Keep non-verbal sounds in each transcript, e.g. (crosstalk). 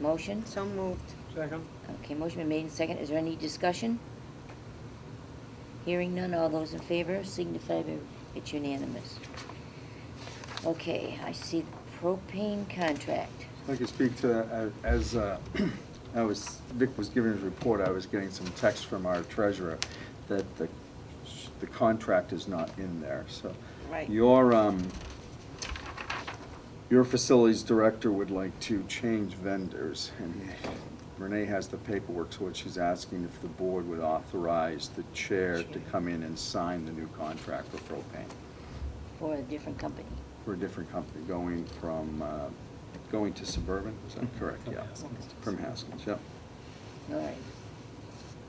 Motion? So moved. Second? Okay, motion been made and second. Is there any discussion? Hearing none, all those in favor signify by, it's unanimous. Okay, I see propane contract. I can speak to, uh, as uh, (clears throat) I was, Vic was giving his report, I was getting some text from our treasurer that the, the contract is not in there, so. Right. Your, um, your facilities director would like to change vendors, and Renee has the paperwork, so what she's asking if the board would authorize the chair to come in and sign the new contract for propane For a different company. for a different company, going from, uh, going to Suburban, is Mm-hmm. that correct? From Yeah. Haskins. From Haskins, yeah. All right.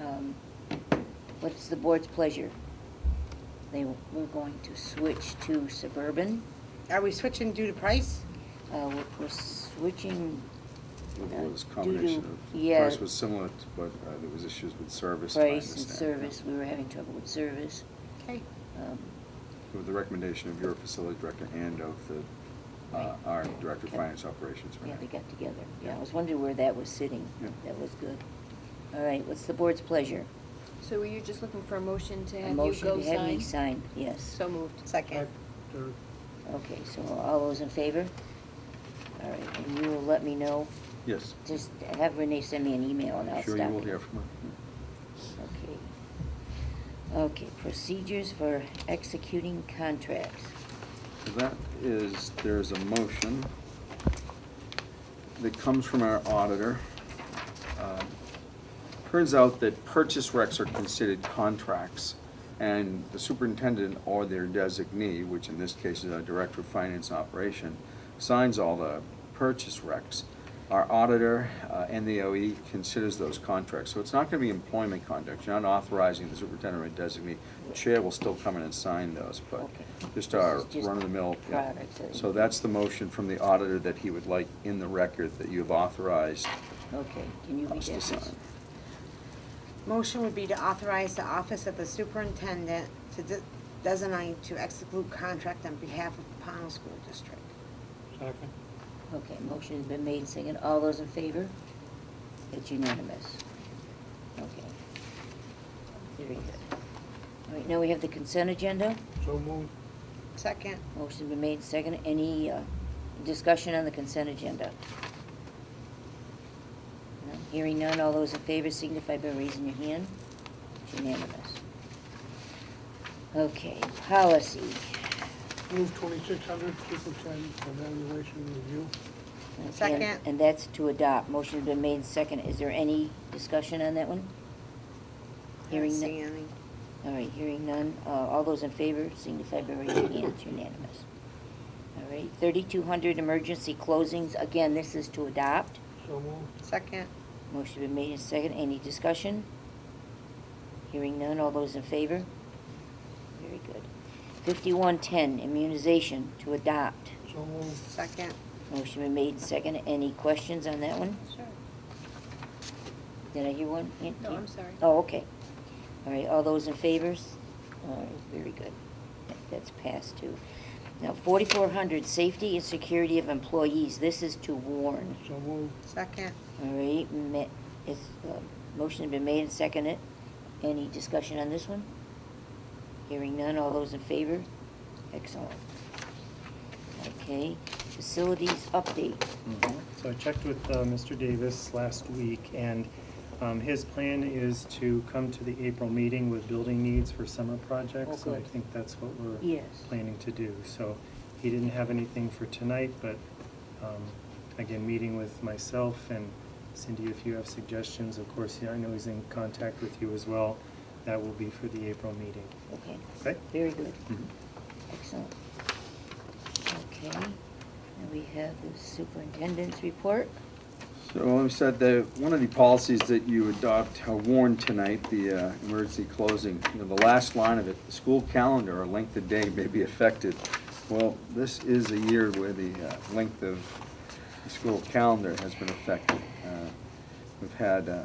Um, What's the board's pleasure? They, we're going to switch to Suburban. Are we switching due to price? Uh, we're- we're switching. It uh, was due a to- combination of, yeah, price was similar, to- but uh, there was issues with service. I Price and understand, yeah. service, we were having trouble with service. Okay. Um, With the recommendation of your facility director and of the, uh, our director of Okay. finance operations. Yeah, Renee. they got together. Yeah, I was wondering where that was sitting. Yeah. That was good. All right, what's the board's pleasure? So were you just looking for a motion to A have you go sign? motion to have me sign, yes. So moved. Second. Third. Okay, so all those in favor? All right, and you will let me know, Yes. just have Renee send me an email and I'll I'm stop Sure it. you will hear from her. Okay. Okay, procedures for executing contracts. So That is, there's a motion that comes from our auditor. Um, Turns out that purchase recs are considered contracts, and the superintendent or their designee, which in this case is our director of finance and operation, signs all the purchase recs. Our auditor uh, and the OE considers those contracts, so it's not gonna be employment contracts, you're not authorizing the superintendent or designee. The Chair will still come in and sign those, but Okay. just This our is just run-of-the-mill. yeah. products that- So that's the motion from the auditor that he would like in the record that you have authorized Okay, can you read us to that? sign. Motion would be to authorize the office of the superintendent to de- designate to execute contract on behalf of the Pownell School District. Second? Okay, motion has been made, second. All those in favor? It's unanimous. Okay. Very good. All right, now we have the consent agenda. So moved. Second. Motion been made, second. Any uh, discussion on the consent agenda? No? Hearing none, all those in favor signify by raising your hand. It's unanimous. Okay, policy. Move twenty-six hundred, superintendent evaluation review. Okay, Second. And that's to adopt. Motion been made, second. Is there any discussion on that one? Hearing Don't none. see any. All right, hearing none. Uh, All those in favor signify by raising your hand. It's unanimous. All right, 3,200 emergency closings. Again, this is to adopt. So moved. Second. Motion been made and second. Any discussion? Hearing none. All those in favor? Very good. 5110 immunization to adopt. So moved. Second. Motion been made and second. Any questions on that one? Sure. Did I hear one? Aunt No, Kate? I'm sorry. Oh, okay. All right, all those in favors? All right, very good. That- That's passed too. Now, forty-four hundred, safety and security of employees, this is to warn. So moved. Second. All right, ma- it's, uh, motion been made and seconded. Any discussion on this one? Hearing none, all those in favor? Excellent. Okay, facilities update. So I checked with uh, Mr. Davis last week, and um, his plan is to come to the April meeting with building needs for summer projects. Oh, And I good. think that's what we're Yes. planning to do. So he didn't have anything for tonight, but um, again, meeting with myself and Cindy, if you have suggestions, of course, yeah, I know he's in contact with you as well. That will be for the April meeting. Okay. Okay. Very good. Mm-hmm. Excellent. Okay, and we have the superintendent's report. So we said that one of the policies that you adopt or warn tonight, the uh, emergency closing, you know, the last line of it, the school calendar or length of day may be affected. Well, this is a year where the uh, length of the school calendar has been affected. Uh, We've had uh,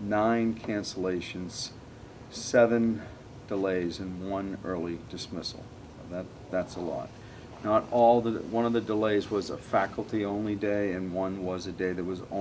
nine cancellations, seven delays, and one early dismissal. That, that's a lot. Not all, the one of the delays was a faculty-only day, and one was a day that was only.